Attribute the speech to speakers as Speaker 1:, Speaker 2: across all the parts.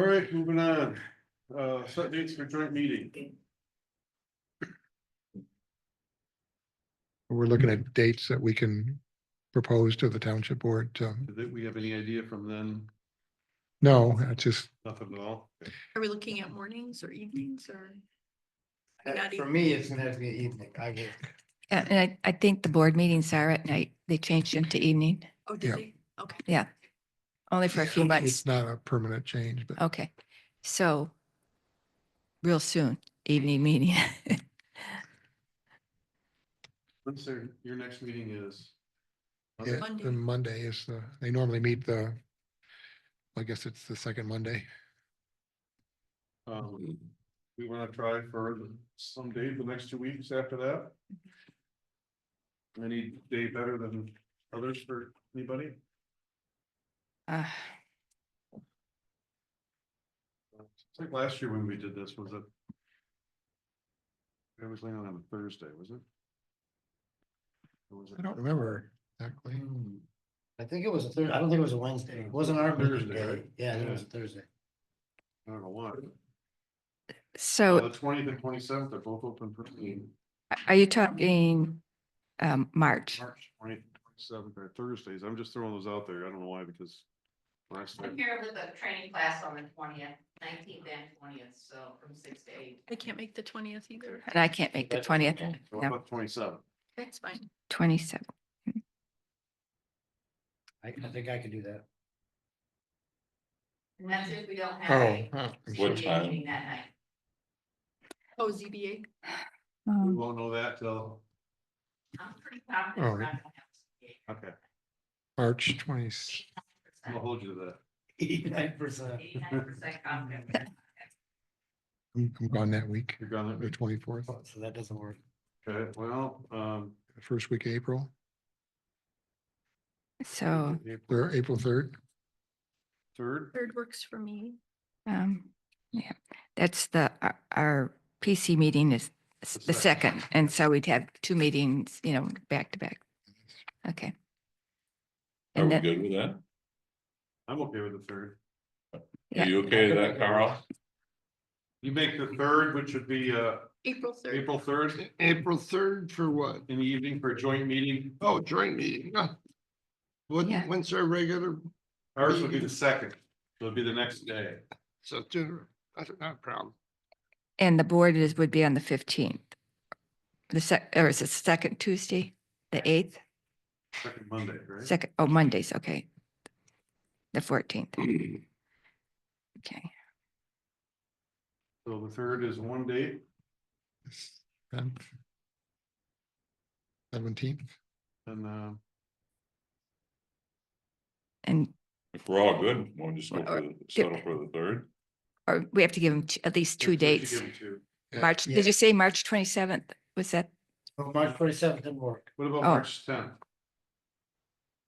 Speaker 1: right, moving on, uh, set dates for joint meeting.
Speaker 2: We're looking at dates that we can propose to the township board. to-
Speaker 1: Did we have any idea from then?
Speaker 2: No, it's just,
Speaker 1: Nothing at all.
Speaker 3: Are we looking at mornings or evenings or? Not
Speaker 4: Uh, For
Speaker 3: even-
Speaker 4: me, it's gonna have to be evening. I will.
Speaker 5: Yeah, and I, I think the board meetings are at night. They changed them to evening,
Speaker 3: Oh,
Speaker 2: Yeah.
Speaker 3: did they? Okay.
Speaker 5: yeah. Only for a few months.
Speaker 2: it's not a permanent change, but
Speaker 5: Okay, so real soon, evening meeting.
Speaker 1: When's their- your next meeting is?
Speaker 5: Oh,
Speaker 2: yeah,
Speaker 3: Monday.
Speaker 2: the Monday is the, they normally meet the, I guess it's the second Monday.
Speaker 1: Um, we wanna try for some day the next two weeks after that? Any day better than others for anybody?
Speaker 5: Uh,
Speaker 1: It's like last year when we did this, was it? It was laying on a Thursday, was it? Or was it?
Speaker 2: I don't remember exactly.
Speaker 4: I think it was a Thursday. I don't think it was a Wednesday. It wasn't our meeting
Speaker 1: Thursday,
Speaker 4: day.
Speaker 1: right?
Speaker 4: Yeah, I think
Speaker 1: Yeah.
Speaker 4: it was a Thursday.
Speaker 1: I don't know why. Uh,
Speaker 5: So Oh.
Speaker 1: The twentieth and twenty-seventh, they're both open for me.
Speaker 5: a- are you talking um, March?
Speaker 1: March twentieth, twenty-seventh or Thursdays. I'm just throwing those out there. I don't know why, because. when I
Speaker 6: I'm
Speaker 1: started-
Speaker 6: here with a training class on the twentieth, nineteenth and twentieth, so from six to eight.
Speaker 3: I can't make the twentieth either.
Speaker 5: And I can't make the
Speaker 4: That's-
Speaker 5: 20th,
Speaker 1: So
Speaker 5: No.
Speaker 1: about twenty-seven?
Speaker 3: That's fine.
Speaker 5: 27.
Speaker 4: I, I think I could do that.
Speaker 6: And that's if we don't have
Speaker 2: Oh,
Speaker 6: a
Speaker 2: huh, I'm
Speaker 6: ZBA
Speaker 2: sorry.
Speaker 6: meeting that night.
Speaker 3: Oh, ZBA.
Speaker 1: We
Speaker 5: Um,
Speaker 1: won't know that till,
Speaker 6: I'm pretty confident
Speaker 2: Oh.
Speaker 6: we're not gonna have a ZBA.
Speaker 1: okay,
Speaker 2: March twenty,
Speaker 1: I'll hold you to that.
Speaker 4: Eighty-nine percent.
Speaker 6: Eighty-nine percent confident. we're not gonna have
Speaker 2: I'm I'm gone that week,
Speaker 1: You're gonna,
Speaker 2: the twenty-fourth,
Speaker 4: So that doesn't work.
Speaker 1: okay, well, um.
Speaker 2: first week of April,
Speaker 5: So,
Speaker 2: or April third.
Speaker 1: Third,
Speaker 3: Third works for me.
Speaker 5: um, yeah, that's the, our- our PC meeting is s-
Speaker 1: The
Speaker 5: the
Speaker 1: second.
Speaker 5: second. And so we'd have two meetings, you know, back to back. Okay.
Speaker 7: Are
Speaker 5: And
Speaker 7: we
Speaker 5: then,
Speaker 7: good with that?
Speaker 1: I'm okay with the third.
Speaker 5: Yeah.
Speaker 7: Are you okay with that, Carl?
Speaker 1: You make the third, which would be, uh,
Speaker 3: April third.
Speaker 1: April third
Speaker 8: April third for what?
Speaker 1: in the evening for a joint meeting.
Speaker 8: Oh, joint meeting. huh. What,
Speaker 5: Yeah.
Speaker 8: when's our regular,
Speaker 1: Ours would be the second, so it'd be the next day.
Speaker 8: so dinner, that's not a problem.
Speaker 5: and the board is, would be on the 15th. The sec, or is it second Tuesday, the 8th?
Speaker 1: Second Monday, right?
Speaker 5: Second, oh, Mondays, okay. The fourteenth, okay.
Speaker 1: So the third is one date,
Speaker 2: Seventeenth,
Speaker 1: and, uh,
Speaker 5: And,
Speaker 7: If we're all good, we'll just go for, the- settle for the third.
Speaker 5: or we have to give them at least two
Speaker 1: that's what you give
Speaker 5: dates.
Speaker 1: 'em to.
Speaker 2: Yeah.
Speaker 5: March,
Speaker 4: Yeah.
Speaker 5: did you say March twenty-seventh? Was that,
Speaker 4: Well, March twenty-seventh didn't work.
Speaker 1: What about
Speaker 5: Oh.
Speaker 1: March tenth?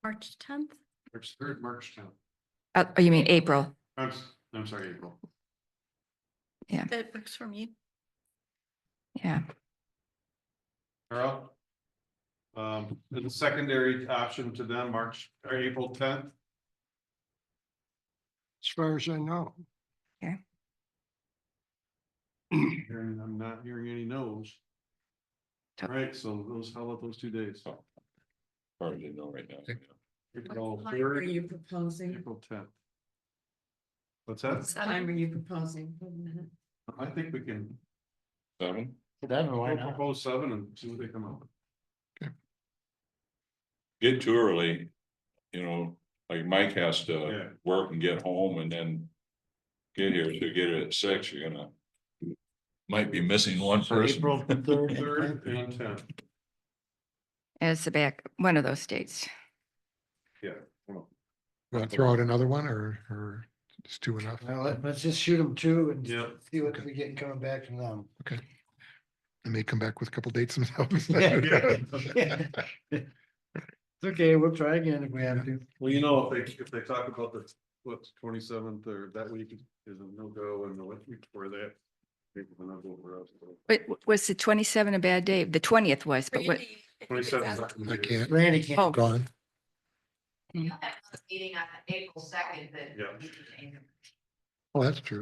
Speaker 3: March tenth.
Speaker 1: March third, March tenth.
Speaker 5: oh, oh, you mean April?
Speaker 1: I'm, s- I'm sorry, April.
Speaker 3: That works for me.
Speaker 5: Yeah,
Speaker 1: Carl? Um, the secondary option to them, March or April tenth,
Speaker 8: As far as I know,
Speaker 1: and I'm not hearing any no's. All
Speaker 5: Tough.
Speaker 1: right, so those, how about those two days?
Speaker 7: Already know right now.
Speaker 2: Okay.
Speaker 1: April
Speaker 9: Time are
Speaker 1: third,
Speaker 9: you proposing?
Speaker 1: April tenth. What's that?
Speaker 9: Time are
Speaker 3: Seven.
Speaker 9: you proposing?
Speaker 1: I think we can
Speaker 7: Seven?
Speaker 4: That one, why
Speaker 1: we'll
Speaker 4: not?
Speaker 1: propose seven and see what they come up with.
Speaker 7: Get too early, you know, like Mike has to
Speaker 1: Yeah.
Speaker 7: work and get home and then get here, so you get it at six, you're gonna might be missing one
Speaker 4: So
Speaker 7: person.
Speaker 4: April third and
Speaker 1: Third
Speaker 4: 10th.
Speaker 1: and tenth,
Speaker 5: as the back, one of those dates.
Speaker 2: want to throw out another one or, or it's two enough?
Speaker 4: Well, let- let's just shoot them two and
Speaker 1: Yeah.
Speaker 4: see what we get coming back from them.
Speaker 2: And they come back with a couple dates themselves.
Speaker 4: Yeah. It's okay, we'll try again if we have to.
Speaker 1: well, you know, if they, if they talk about the, what's twenty seventh or that week is a no go and the week before that. People will not vote for us.
Speaker 5: But w- was the twenty-seven a bad day? The twentieth was, but what,
Speaker 3: Randy, I think
Speaker 1: Twenty
Speaker 3: it's
Speaker 1: seventh.
Speaker 3: out.
Speaker 2: I can't,
Speaker 4: Randy can't.
Speaker 5: Oh.
Speaker 2: gone.
Speaker 6: a Meeting on April second, that.
Speaker 1: Yeah.
Speaker 6: we can change it.
Speaker 2: Oh, that's true.